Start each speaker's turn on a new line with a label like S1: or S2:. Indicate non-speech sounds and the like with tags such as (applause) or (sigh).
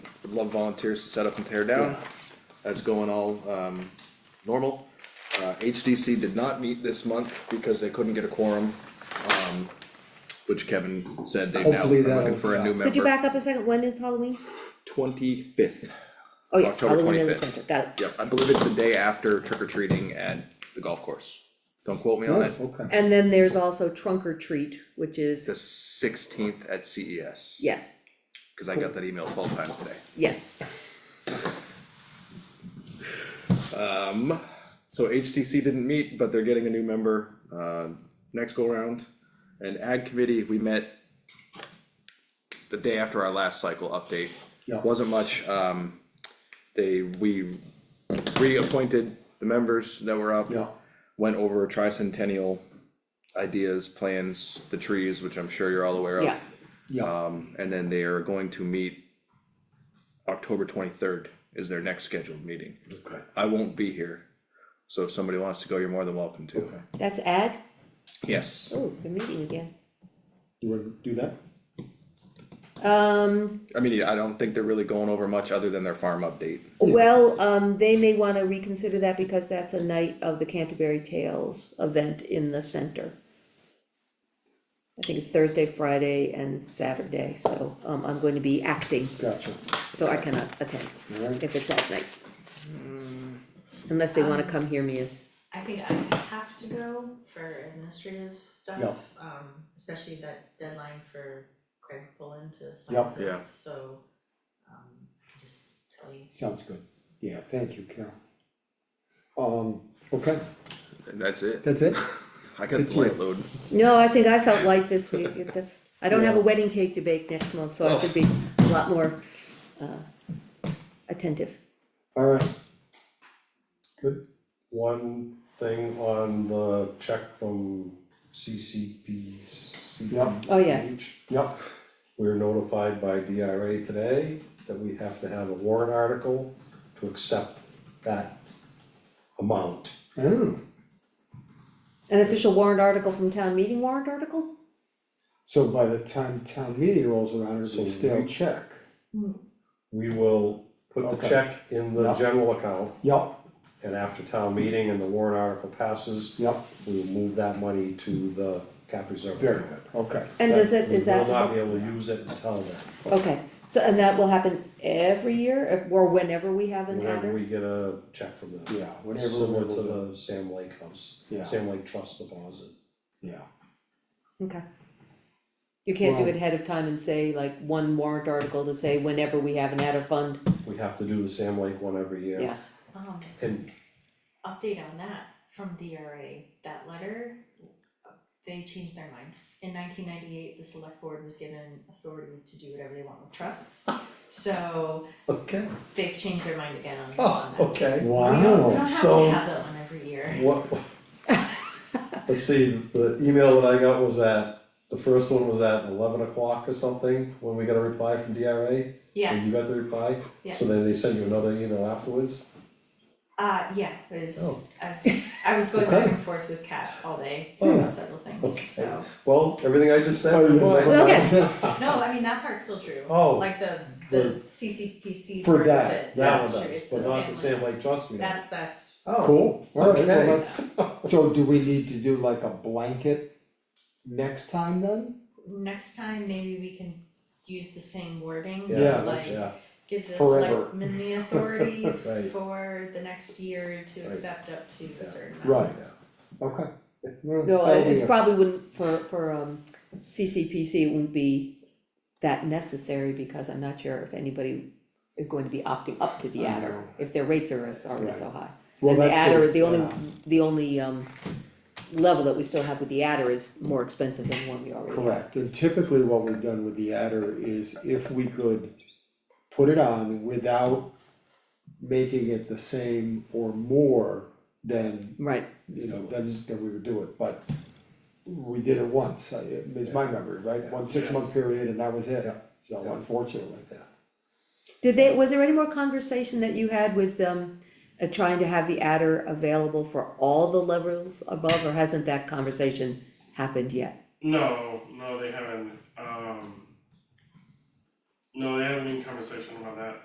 S1: love volunteers to set up and tear down. That's going all, um, normal. Uh, HDC did not meet this month because they couldn't get a quorum, um, which Kevin said they now are
S2: Hopefully that'll-
S1: looking for a new member.
S3: Could you back up a second, when is Halloween?
S1: Twenty-fifth,
S3: Oh, yes,
S1: October
S3: Halloween in the
S1: 25th.
S3: center, got it.
S1: yep, I believe it's the day after trick or treating at the golf course. Don't quote me on
S2: Oh,
S1: that.
S2: okay.
S3: And then there's also trunk or treat, which
S1: The
S3: is,
S1: sixteenth at CES.
S3: yes,
S1: Cause I got that email twelve times today.
S3: yes,
S1: Um, so HTC didn't meet, but they're getting a new member, uh, next go round. And ag committee, we met the day after our last cycle update.
S2: Yeah.
S1: Wasn't much, um, they, we reappointed the members that were up.
S2: Yeah.
S1: Went over tricentennial ideas, plans, the trees, which I'm sure you're all aware of.
S3: yeah,
S2: Yeah,
S1: Um, and then they are going to meet October twenty-third is their next scheduled meeting.
S2: okay,
S1: I won't be here, so if somebody wants to go, you're more than welcome to.
S2: okay.
S3: that's ag,
S1: Yes,
S3: oh, the meeting again.
S2: You wanna do that?
S3: Um,
S1: I mean, I don't think they're really going over much other than their farm update.
S3: well, um, they may wanna reconsider that because that's a night of the Canterbury Tales event in the center. I think it's Thursday, Friday, and Saturday, so, um, I'm going to be acting,
S2: Gotcha,
S3: so I cannot attend
S2: alright.
S3: if it's at night. Unless they wanna come hear me as
S4: I think I have to go for administrative stuff.
S2: Yeah.
S4: Um, especially that deadline for Craig Pullen to
S2: Yeah.
S4: sign
S1: Yeah.
S4: stuff, so, um, just tell you.
S2: Sounds good. Yeah, thank you, Carol. Um, okay,
S1: And that's it.
S2: that's it?
S1: I got the
S2: Good
S1: light
S2: deal.
S1: load.
S3: No, I think I felt light this week, It- that's, I don't have a
S2: Yeah.
S3: wedding cake to bake next month,
S5: Oh.
S3: so I should be a lot more, uh, attentive.
S2: Alright,
S5: Good. One thing on the check from CCP,
S2: Yeah.
S5: CCPH.
S3: Oh, yeah.
S2: yeah,
S5: We were notified by DRA today that we have to have a warrant article to accept that amount.
S2: oh,
S3: An official warrant article from town meeting warrant article?
S2: so by the time town meeting rolls around, it's
S5: So
S2: a stale
S5: we-
S2: check.
S5: We will put the
S2: Okay.
S5: check in the
S2: Yeah.
S5: general account,
S2: Yep,
S5: and after town meeting and the warrant article passes,
S2: yep,
S5: we will move that money to the cap reserve.
S2: very good, okay.
S3: And does it,
S5: We
S3: is
S5: will not
S3: that,
S5: be able to use it until then.
S3: okay, so, and that will happen every year, if- or whenever we have an
S5: Whenever
S3: adder?
S5: we get a check from them.
S2: Yeah, whatever
S5: Similar
S2: we're able
S5: to the Sam Lake House,
S2: Yeah.
S5: Sam Lake Trust deposit.
S2: Yeah,
S3: Okay. You can't do
S2: Well-
S3: it ahead of time and say like one warrant article to say whenever we have an adder fund,
S5: We have to do the Sam Lake one every year.
S3: yeah,
S4: Um,
S5: And
S4: update on that from DRA, that letter, uh, they changed their mind. In nineteen ninety-eight, the select board was given authority to do whatever they want with trusts, so
S5: okay,
S4: they've changed their mind again on
S5: oh,
S4: on that.
S5: okay.
S4: We don't, we don't
S2: wow,
S4: have
S5: So-
S4: to have that one every year.
S5: What? Let's see, the email that I got was at, the first one was at eleven o'clock or something, when we got a reply from DRA.
S4: Yeah,
S5: And you got the reply,
S4: Yeah.
S5: so then they sent you another email afterwards.
S4: uh, yeah, was, I, I was going back and forth with Kat all day
S5: (laughs) Oh.
S4: about several things, so.
S5: Well, everything I just said.
S2: Oh, you
S5: replied.
S2: didn't-
S3: Okay.
S4: No, I mean, that part's still true.
S5: Oh.
S4: Like the, the CCPC
S2: For
S4: part of
S2: that,
S4: it,
S5: That
S4: that's
S5: one
S4: true,
S5: does,
S4: it's the
S5: but
S4: same
S5: not the Sam
S4: one.
S5: Lake Trust meeting.
S4: That's, that's,
S5: Oh.
S2: (laughs) cool, alright, well,
S5: Okay.
S2: that's, so do we need to do like a blanket next time then?
S4: next time maybe we can use the same wording,
S5: Yeah,
S4: like,
S5: yeah,
S4: give the
S2: Forever.
S4: selectmen
S5: (laughs)
S4: the authority
S5: Right.
S4: for the next year to
S5: Right.
S4: accept up to
S5: Yeah.
S4: a certain amount.
S2: Right, okay. Well,
S3: No,
S2: that'll be
S3: it's
S2: a-
S3: probably wouldn't, for, for, um, CCPC, it wouldn't be that necessary, because I'm not sure if anybody is going to be opting up to the
S2: I
S3: adder,
S2: know.
S3: if their rates are as- already so high.
S2: Well,
S3: And the
S2: that's
S3: adder, the only,
S2: yeah.
S3: the only, um, level that we still have with the adder is more expensive than the one we already have.
S2: Correct, and typically what we've done with the adder is if we could put it on without making it the same or more, then,
S3: Right,
S2: you know, then, then we would do it, but we did it once, I- it's my memory, right, one six-month period and that was it,
S5: Yeah.
S2: so
S5: Yeah.
S2: unfortunately.
S3: did they, was there any more conversation that you had with, um, uh, trying to have the adder available for all the levels above, or hasn't that conversation happened yet?
S6: No, no, they haven't, um. No, they haven't been in conversation about that.